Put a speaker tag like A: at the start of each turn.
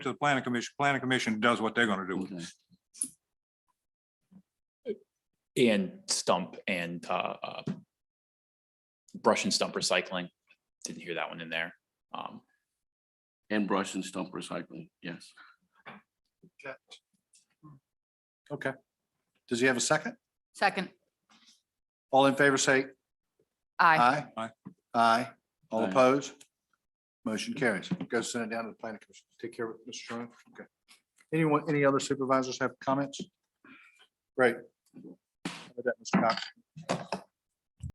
A: to the planning commission, planning commission does what they're gonna do with it.
B: Okay.
C: and stump and uh, uh, brush and stump recycling. Didn't hear that one in there. Um,
B: And brush and stump recycling, yes.
D: Okay. Does he have a second?
E: Second,
D: All in favor, say
E: aye.
D: aye.
A: Aye.
D: Aye. All
B: Aye.
D: opposed? Motion carries. Go send it down to the planning commission. Take care of it, Mr. Sherman. Okay. Anyone, any other supervisors have comments? Great. How about that, Mr. Cox?